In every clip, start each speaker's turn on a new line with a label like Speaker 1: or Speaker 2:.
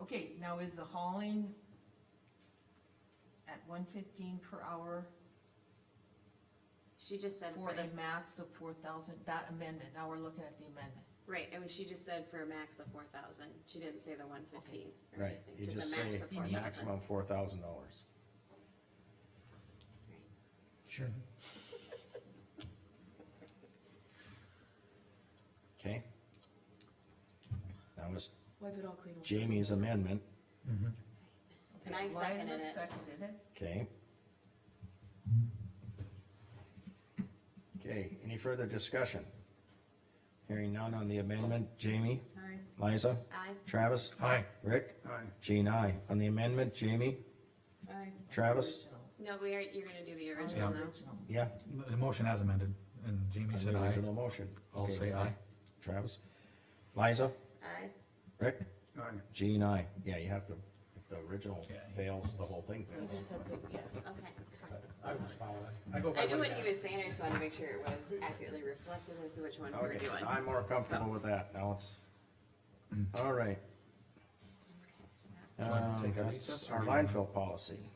Speaker 1: Okay, now is the hauling at one fifteen per hour
Speaker 2: She just said
Speaker 1: for
Speaker 2: for
Speaker 1: the
Speaker 2: this,
Speaker 1: max of four thousand, that amendment, now we're looking at the amendment.
Speaker 2: right, it was, she just said for a max of four thousand, she didn't say the one fifteen.
Speaker 3: Right, you just say maximum four thousand dollars.
Speaker 4: Sure.
Speaker 3: Okay? That was
Speaker 2: Wipe it all clean.
Speaker 3: Jamie's amendment,
Speaker 2: And
Speaker 1: Okay,
Speaker 2: I seconded
Speaker 1: Liza
Speaker 2: it.
Speaker 1: seconded it.
Speaker 3: okay? Okay, any further discussion? Hearing none on the amendment, Jamie,
Speaker 2: Alright,
Speaker 3: Liza,
Speaker 2: aye,
Speaker 3: Travis,
Speaker 4: Aye.
Speaker 3: Rick?
Speaker 4: Aye.
Speaker 3: Jean, aye. On the amendment, Jamie,
Speaker 2: aye.
Speaker 3: Travis?
Speaker 2: No, we are, you're gonna do the
Speaker 1: Original.
Speaker 2: original
Speaker 1: On the
Speaker 2: now.
Speaker 1: original.
Speaker 3: Yeah,
Speaker 4: The motion has amended, and Jamie
Speaker 3: on
Speaker 4: said
Speaker 3: the
Speaker 4: aye.
Speaker 3: original motion.
Speaker 4: I'll
Speaker 3: Okay, Um,
Speaker 4: say aye.
Speaker 3: Travis? Liza?
Speaker 2: Aye,
Speaker 3: Rick?
Speaker 4: Aye.
Speaker 3: Jean, aye. Yeah, you have to, if the original
Speaker 4: Yeah.
Speaker 3: fails, the whole thing
Speaker 1: We
Speaker 3: fails.
Speaker 1: just said that, yeah.
Speaker 2: okay.
Speaker 5: I was following. I go by
Speaker 2: I knew
Speaker 5: what
Speaker 2: what he was saying, I just wanted to make sure it was accurately reflected as to which one we're
Speaker 3: Okay,
Speaker 2: doing.
Speaker 3: I'm more comfortable
Speaker 2: So-
Speaker 3: with that, now it's, all
Speaker 2: Okay,
Speaker 3: right.
Speaker 2: so that-
Speaker 3: Um,
Speaker 4: wanna Mm. take a
Speaker 3: that's
Speaker 4: recess or
Speaker 3: our
Speaker 4: do you wanna-
Speaker 3: landfill policy.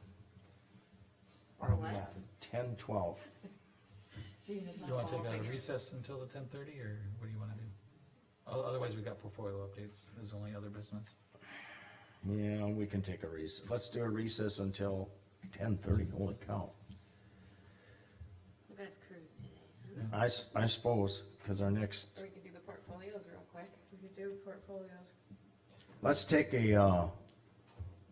Speaker 3: Are we
Speaker 2: What?
Speaker 3: at ten twelve?
Speaker 1: Jean, it's
Speaker 4: You wanna take
Speaker 1: on.
Speaker 4: a recess until the ten thirty, or what do you wanna do? O- Otherwise, we got portfolio updates, There's only other business.
Speaker 3: Yeah, we can take a recess, let's do a recess until ten thirty, holy cow.
Speaker 2: Look at his cruise today.
Speaker 3: I, s- I suppose, cause our next,
Speaker 2: Or we could do the portfolios real quick. We could do portfolios.
Speaker 3: let's take a, uh,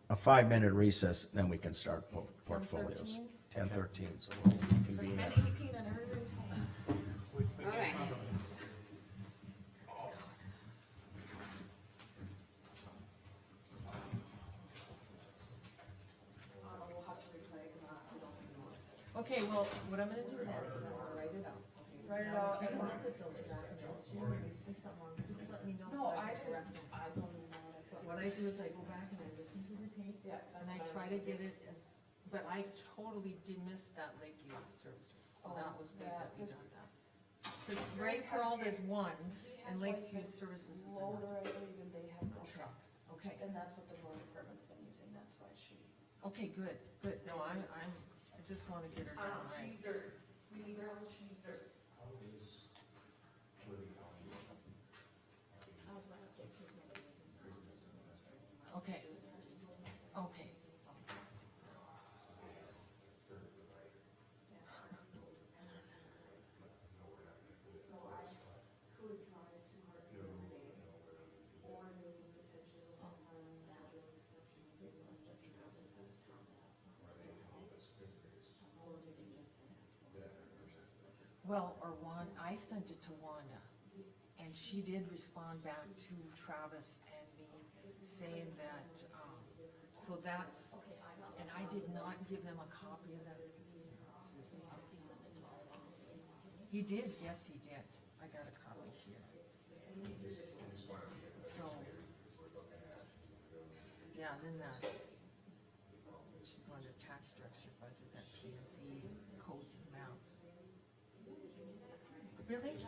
Speaker 3: a five-minute recess, then we can start po- portfolios. Ten thirteen, so we'll convene at
Speaker 1: eighteen and everybody's home.
Speaker 2: Alright.
Speaker 1: Okay, well, what I'm gonna do then is I'm gonna write it out. Write it out. and look at those documents, Jean, if you see something wrong, just let me know. so
Speaker 6: No, I
Speaker 1: can
Speaker 6: didn't,
Speaker 1: correct it.
Speaker 6: I don't even know what I said.
Speaker 1: What I do is I go back and I listen to the tape,
Speaker 6: Yeah.
Speaker 1: and I try to get it as, but I totally did miss that Lakeview services, so
Speaker 6: Oh,
Speaker 1: that was big
Speaker 6: yeah,
Speaker 1: that we
Speaker 6: 'cause-
Speaker 1: got that. Cause Great World is one, and Lakeview Services is another,
Speaker 6: Loader, I believe, and they have no trucks,
Speaker 1: okay,
Speaker 6: and that's what the road department's been using, that's why she.
Speaker 1: okay, good, good, no, I'm, I'm, I just wanna get her down right.
Speaker 6: Cheeser, Um, we need her on Cheeser.
Speaker 1: Okay, okay. Well, or Wan, I sent it to Wanda, and she did respond back to Travis and me, saying that, um, so that's, and I did not give them a copy of that. He did, yes, he did, I got a copy here. So. Yeah, then that. She wanted tax structure budget, that P and Z codes and maps. Really?